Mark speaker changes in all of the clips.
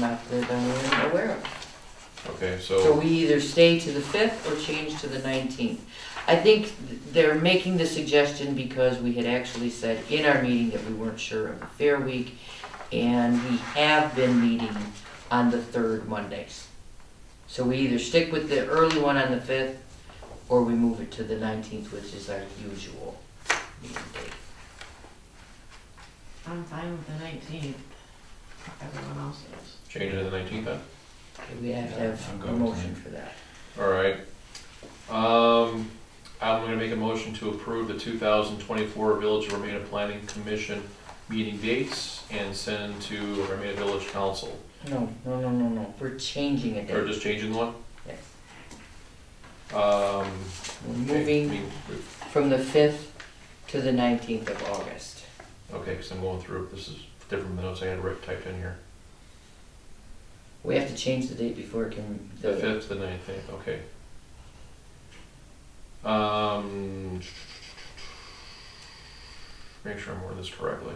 Speaker 1: not that I'm aware of.
Speaker 2: Okay,
Speaker 1: So
Speaker 2: so,
Speaker 1: we either stay to the fifth or change to the nineteenth. I think they're making the suggestion because we had actually said in our meeting that we weren't sure of the Fair Week, and we have been meeting on the third Mondays. So we either stick with the early one on the fifth, or we move it to the nineteenth, which is our usual meeting date.
Speaker 3: I'm fine with the nineteenth. Everyone else is.
Speaker 2: change it to the nineteenth then?
Speaker 1: Okay, We have to
Speaker 2: Yeah, I'm
Speaker 1: have a
Speaker 2: good with
Speaker 1: motion for that.
Speaker 2: Alright. Um, I'm gonna make a motion to approve the two thousand twenty-four Village of Romana Planning Commission meeting dates and send to Romana Village Council.
Speaker 1: No, no, no, no, no, we're changing it.
Speaker 2: Or just changing the one?
Speaker 1: Yes.
Speaker 2: Um.
Speaker 1: We're
Speaker 2: okay,
Speaker 1: moving
Speaker 2: me-
Speaker 1: from the 5th to the 19th of August.
Speaker 2: Okay, because I'm going through, this is different than those I had writ- typed in here.
Speaker 1: We have to change the date before it can,
Speaker 2: The
Speaker 1: the,
Speaker 2: fifth, the nineteenth, okay. Um. Make sure I'm wording this correctly.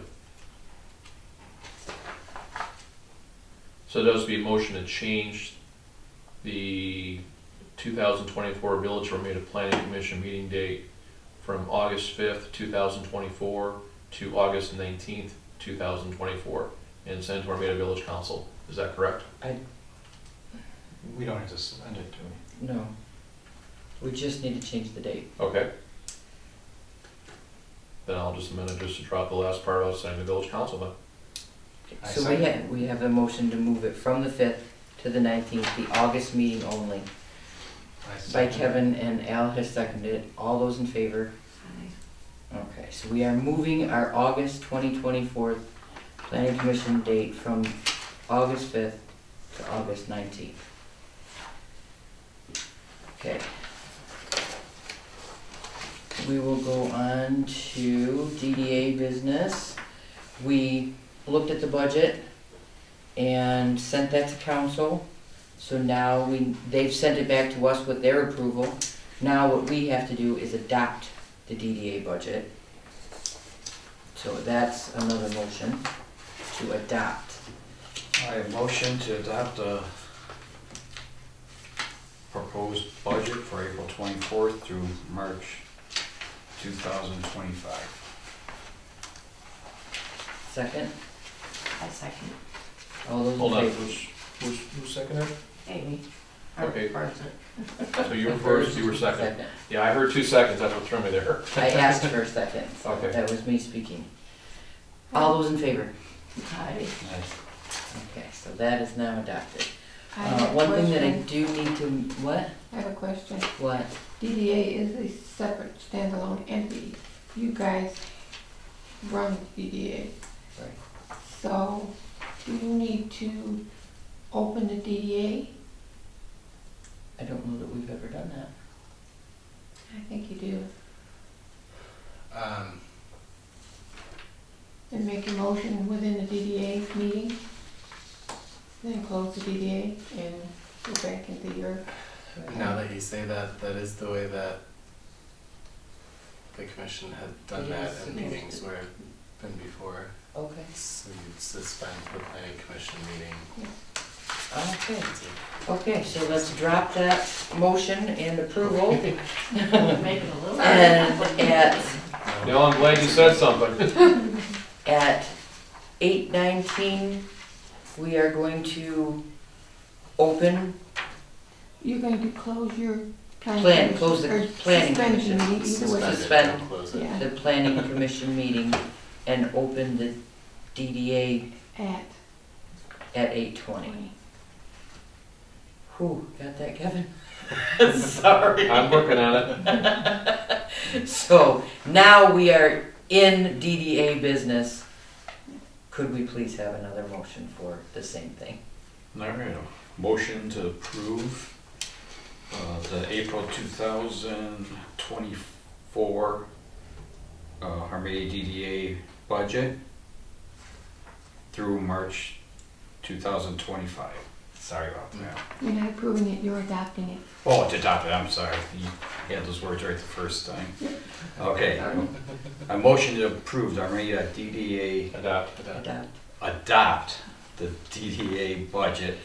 Speaker 2: So those would be a motion to change the two thousand twenty-four Village Romita Planning Commission meeting date from August fifth, two thousand twenty-four to August nineteenth, two thousand twenty-four, and send to Romita Village Council. Is that correct?
Speaker 4: We don't have to send it to him.
Speaker 1: no. We just need to change the date.
Speaker 2: Okay. Then I'll just amend it just to drop the last part out, saying the village council then.
Speaker 4: I
Speaker 1: So we
Speaker 4: second.
Speaker 1: have, we have a motion to move it from the 5th to the 19th, the August meeting only,
Speaker 4: I
Speaker 1: by
Speaker 4: second.
Speaker 1: Kevin and Al has seconded. it. All those in favor? Okay, so we are moving our August 2024 planning commission date from August 5th to August 19th. Okay. We will go on to DDA business. We looked at the budget and sent that to council. So now we, they've sent it back to us with their approval. Now what we have to do is adopt the DDA budget. So that's another motion to adopt.
Speaker 4: I motion to adopt a proposed budget for April twenty-fourth through March two thousand twenty-five.
Speaker 1: Second,
Speaker 3: I second.
Speaker 1: all those
Speaker 2: Hold on,
Speaker 1: in favor?
Speaker 2: who's, who's, who's seconded?
Speaker 3: Amy.
Speaker 2: Okay.
Speaker 3: Or is it-
Speaker 2: So you were first, you were second.
Speaker 1: Second.
Speaker 2: Yeah, I heard two seconds, that's what threw me there.
Speaker 1: I asked for a second, so
Speaker 2: Okay.
Speaker 1: that was me speaking. All those in favor?
Speaker 3: Aye.
Speaker 4: I-
Speaker 1: Okay, so that is now adopted.
Speaker 5: I
Speaker 1: Uh,
Speaker 5: have a
Speaker 1: one thing that I
Speaker 5: question.
Speaker 1: do need to, what,
Speaker 5: I have a question.
Speaker 1: what?
Speaker 5: DDA is a separate standalone entity. You guys run DDA.
Speaker 1: Right.
Speaker 5: So do you need to open the DDA?
Speaker 1: I don't know that we've ever done that.
Speaker 5: I think you do.
Speaker 4: Um,
Speaker 5: Then make a motion within the DDA meeting, then close the DDA and go back into your.
Speaker 6: Now that you say that, that is the way that the commission had done that
Speaker 1: Yes,
Speaker 6: in
Speaker 1: yes.
Speaker 6: meetings where it's been before.
Speaker 1: Okay.
Speaker 6: So you'd suspend the planning commission meeting.
Speaker 1: Okay,
Speaker 6: to-
Speaker 1: okay, so let's drop that motion and approval
Speaker 3: Make it a little.
Speaker 1: and at
Speaker 2: Now, I'm glad you said something.
Speaker 1: At eight nineteen, we are going to open,
Speaker 5: You're going to close your. planning
Speaker 1: Plan- close the
Speaker 5: commission, or
Speaker 1: planning
Speaker 5: suspend the
Speaker 1: commission.
Speaker 5: meeting, Either way.
Speaker 6: Suspend it,
Speaker 1: Suspend.
Speaker 6: don't close it.
Speaker 5: Yeah,
Speaker 1: the planning commission meeting and open the DDA
Speaker 5: at
Speaker 1: at eight twenty.
Speaker 5: twenty.
Speaker 1: Whew, got that, Kevin? Sorry.
Speaker 2: I'm working on it.
Speaker 1: So now we are in DDA business. Could we please have another motion for the same thing?
Speaker 4: All right, a motion to approve uh, the April two thousand twenty-four uh, Harmony DDA budget through March two thousand twenty-five. Sorry about
Speaker 1: Mm.
Speaker 4: that.
Speaker 5: You're not approving it, you're adopting it.
Speaker 4: Oh, to adopt it, I'm sorry. You had those words right the first time. Okay. I motion to approve the Armenia DDA
Speaker 2: Adopt.
Speaker 6: But, uh,
Speaker 1: Adopt.
Speaker 4: adopt the DDA budget